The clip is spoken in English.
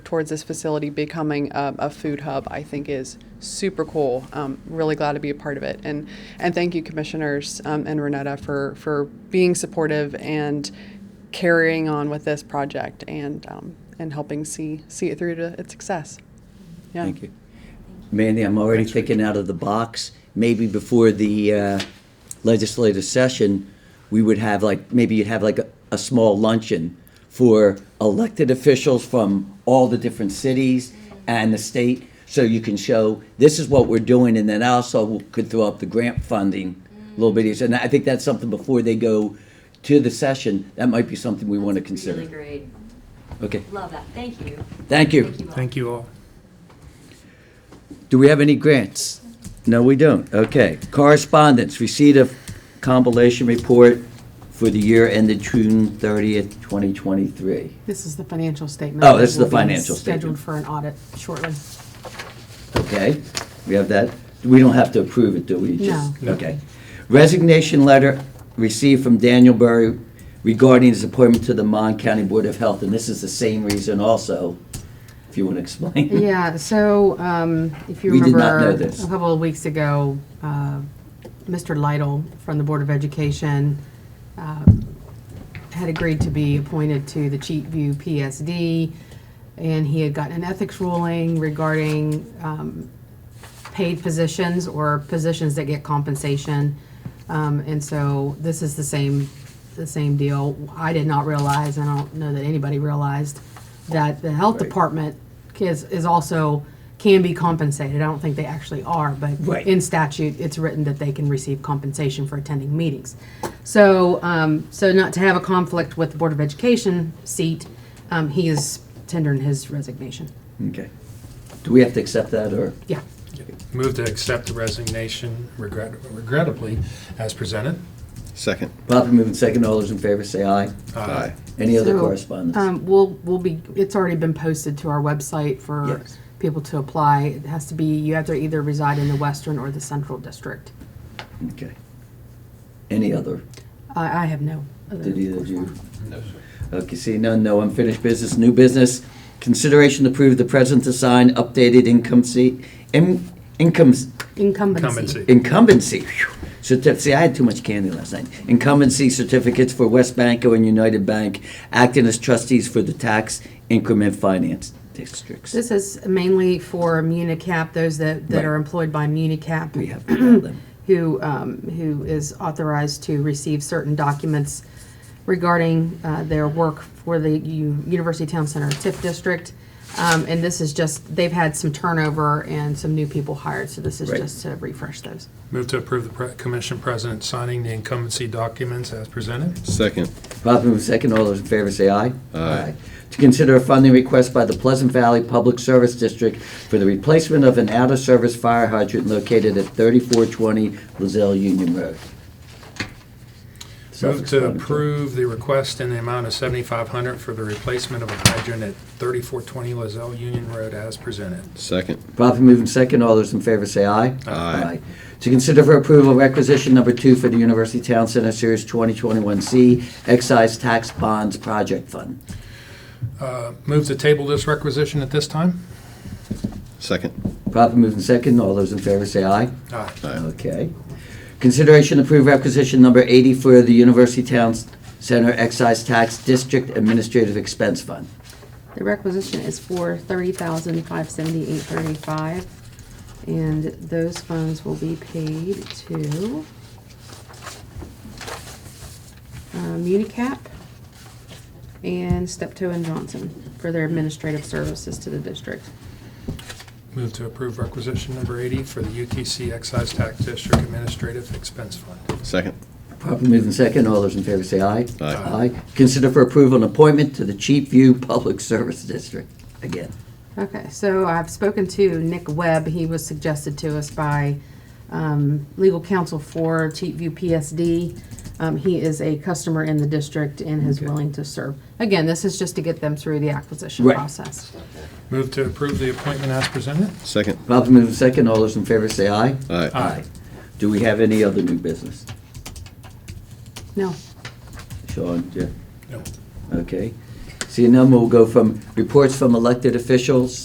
towards this facility becoming a, a food hub, I think is super cool. Um, really glad to be a part of it. And, and thank you, Commissioners um, and Renetta, for, for being supportive and carrying on with this project and, um, and helping see, see it through to its success. Yeah. Thank you. Mandy, I'm already thinking out of the box. Maybe before the uh, legislative session, we would have like, maybe you'd have like a, a small luncheon for elected officials from all the different cities and the state. So you can show, this is what we're doing, and then I also could throw up the grant funding, little bit. And I think that's something before they go to the session, that might be something we want to Really consider. great. Okay, Love that. Thank you. thank you. all. Thank you all. Do we have any grants? No, we don't. Okay. Correspondence, receipt of compilation report for the year ended June 30th, 2023. This is the financial statement. Oh, this is It will the be financial statement. Scheduled for an audit shortly. Okay, we have that. We don't have to approve it, do we? Just- No. Okay. Resignation letter received from Daniel Burry regarding his appointment to the Mon County Board of Health, and this is the same reason also, if you want to explain. Yeah, so um, if you We did remember. not know this. A couple of weeks ago, uh, Mr. Lytle from the Board of Education um, had agreed to be appointed to the Cheatview PSD, and he had gotten an ethics ruling regarding um, paid positions or positions that get compensation. Um, And so this is the same, the same deal. I did not realize, and I don't know that anybody realized, that the health Right. department is, is also, can be compensated. I don't think they actually are, but Right. in statute, it's written that they can receive compensation for attending meetings. So, um, so not to have a conflict with the Board of Education seat, um, he is tendering his resignation. Okay. Do we have to accept that, or? Yeah. Move to accept the resignation regret- regrettably as presented. Second. Properly moved in second, all those in favor say aye. Aye. Any other So, correspondence? Um, we'll, we'll be, it's already been posted to our website for Yes. people to apply. It has to be, you have to either reside in the Western or the Central District. Okay. Any other? I, I have no. other Did either of you? correspondence. Okay, see none, no unfinished business, new business. Consideration to approve the present assigned updated income seat, in, income, Incumbency. Incumbency. incumbency. Phew. Certi- See, I had too much candy last night. Incumbency certificates for West Banco and United Bank acting as trustees for the tax increment finance districts. This is mainly for MuniCap, those that, that Right. are employed by MuniCap. We have to tell them. who, um, who is authorized to receive certain documents regarding uh, their work for the U- University Town Center TIF district. Um, And this is just, they've had some turnover and some new people hired, so this is Right. just to refresh those. Move to approve the pre- commission president signing the incumbency documents as presented. Second. Properly moved second, all those in favor say aye. Aye. To consider a funding request by the Pleasant Valley Public Service District for the replacement of an out-of-service fire hydrant located at 3420 Lozelle Union Road. Move to Self-explanatory. approve the request in the amount of 7500 for the replacement of a hydrant at 3420 Lozelle Union Road as presented. Second. Properly moved second, all those in favor say aye. Aye. To consider for approval requisition number two for the University Town Center Series 2021C Excise Tax Bonds Project Fund. Uh, Move to table this requisition at this time. Second. Properly moved second, all those in favor say aye. Aye. Aye. Okay. Consideration approved requisition number 80 for the University Town Center Excise Tax District Administrative Expense Fund. The requisition is for thirty thousand five seventy-eight thirty-five, and those funds will be paid to uh, Municap and Steptoe and Johnson for their administrative services to the district. Move to approve requisition number 80 for the UTC Excise Tax District Administrative Expense Fund. Second. Properly moved in second. All those in favor say aye. Aye. Consider for approval an appointment to the Cheap View Public Service District. Again, Okay, so I've spoken to Nick Webb. He was suggested to us by um, legal counsel for Cheatview PSD. Um, He is a customer in the district and is Okay. willing to serve. Again, this is just to get them through the acquisition Right. process. Move to approve the appointment as presented. Second. properly moved in second. All those in favor say aye. Aye. Do we have any other new business? No. Sean, Jeff? No. Okay. So your number will go from reports from elected officials